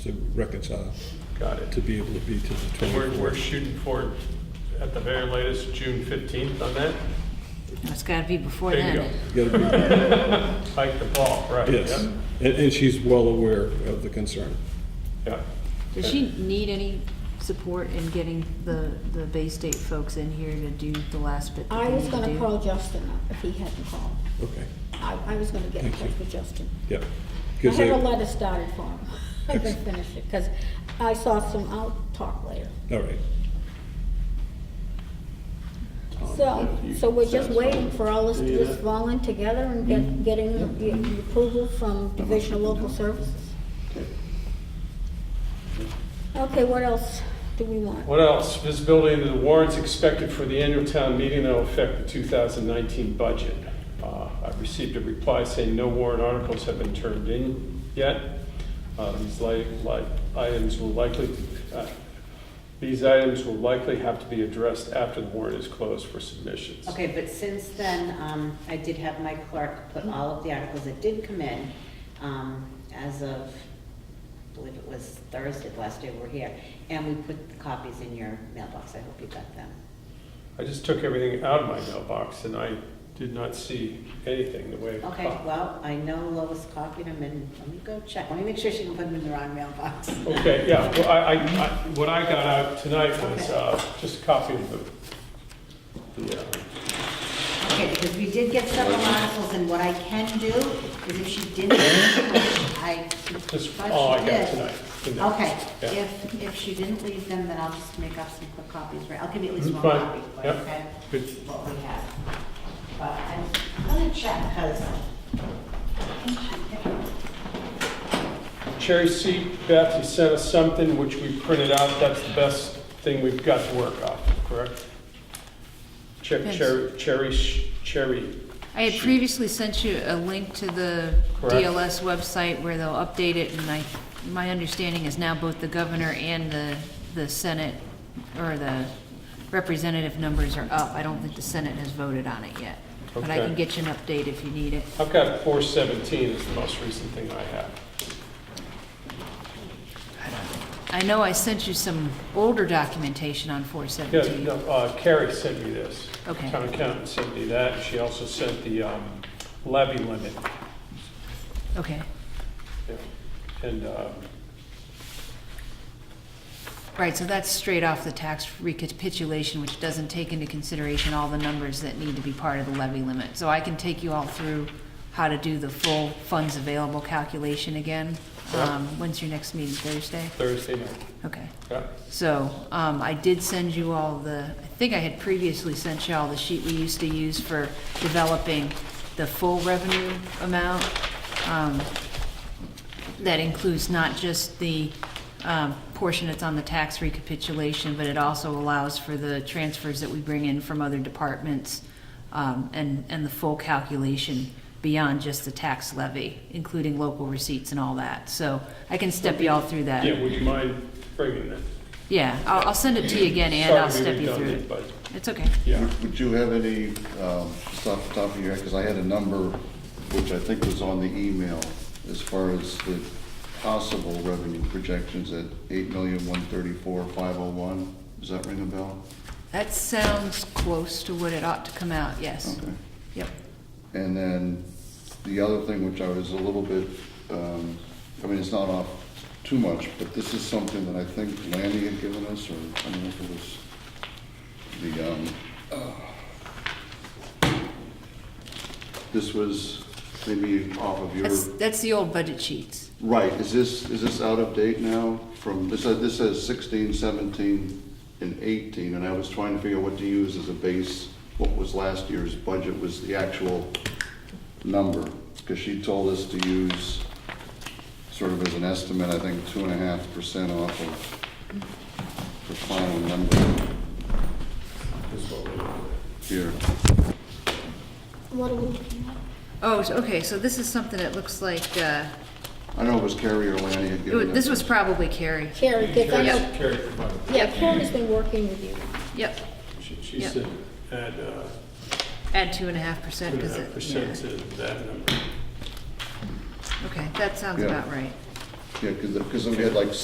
to reconcile, Got it. to be able to be to the And we're, we're 24th. shooting for, at the very latest, June 15th on that? It's gotta be before There you then. You gotta Hike the ball, right? be- Yes, Yep, and, and she's well aware of the concern. Yep. Does she need any support in getting the, the Bay State folks in here to do the last bit that I they was need to gonna do? call Justin up if he hadn't called. Okay, I, I was gonna get in Thank you. touch with Justin. yeah. I 'Cause have a they- letter started for him. I can finish it, because I saw some, I'll talk later. All right, Oh, So, so we're just waiting for all this, this falling together and Mm-hmm. get, getting the the approval from Division of Local Services. Okay, what else do we want? What else? Visibility into the warrants expected for the annual town meeting that will affect the 2019 budget. Uh, I've received a reply saying no warrant articles have been turned in yet. Uh, These li- li- items will likely, uh, these items will likely have to be addressed after the warrant is closed for submissions. Okay, but since then, um, I did have my clerk Mm-hmm. put all of the articles that did come in, um, as of, I believe it was Thursday, the last day we were here, and we put the copies in your mailbox, I hope you got them. I just took everything out of my mailbox and I did not see anything the way. of a Okay, copy. well, I know Lois copied them, and let me go check, let me make sure she didn't put them in the wrong mailbox. Okay, yeah, well, I, I, I- what I got out tonight was, uh, just a copy of the, the, uh, Okay, because we did get several articles, and what I can do is if she didn't, I. That's but she all oh, I got did. tonight, tonight. Okay, Yeah. if, if she didn't leave them, then I'll just make up some quick copies, right? I'll give you at least one Mm-hmm. Fine, copy, like, yep. okay? Good. What we have. But I'm gonna check, because. cherry seat, Beth, you sent us something which we printed out, that's the best thing we've got to work off, correct? Cher- Yes. Cherry, cherry, sh- cherry, I had previously sent you a link to the Correct. DLS website where they'll update it, and I, my understanding is now both the governor and the, the Senate, or the representative numbers are up. I don't think the Senate has voted on it yet. But I Okay. can get you an update if you need it. I've got four seventeen is the most recent thing I have. I know I sent you some older documentation on four Yeah, seventeen. no, uh, Carrie sent me this. Okay. Town accountant sent me that, and she also sent the um, levy limit. Okay. Yeah. And, um, Right, so that's straight off the tax recapitulation, which doesn't take into consideration all the numbers that need to be part of the levy limit. So I can take you all through how to do the full funds available calculation again. Um, When's your next meeting, Thursday? Thursday night. Okay. Yeah. So, um, I did send you all the, I think I had previously sent you all the sheet we used to use for developing the full revenue amount. Um, that includes not just the, um, portion that's on the tax recapitulation, but it also allows for the transfers that we bring in from other departments, um, and, and the full calculation beyond just the tax levy, including local receipts and all that. So I can step you all through that. Yeah, would you mind bringing that? Yeah, I'll, I'll send it to you again, and I'll Sorry to step be you through redundant, it. But, It's okay. yeah, Would- Would you have any, um, just off the top of your head, because I had a number which I think was on the email as far as the possible revenue projections at eight million, one thirty-four, five oh one? Does that ring a bell? That sounds close to what it ought to come out, yes. Okay. Yep. And then the other thing which I was a little bit, um, I mean, it's not off too much, but this is something that I think Lanny had given us, or I don't know if it was the, um, uh, this was maybe off of your, That's, that's the old budget sheets. right, is this, is this out of date now from, this says, this says sixteen, seventeen, and eighteen, and I was trying to figure out what to use as a base, what was last year's budget was the actual number, because she told us to use sort of as an estimate, I think, two and a half percent off of the final number here. What are we looking at? Oh, so- okay, so this is something that looks like, uh, I don't know if it was Carrie or Lanny had it wa- given us. this was probably Carrie. Carrie, 'cause I know, Carrie provided. yeah, Carrie's been working with you. Yep, She- She Yeah. said, add uh, add two and a half percent, two and a because half it, percent yeah. to that number. Okay, that sounds Yeah. about right. Yeah, because, because we had like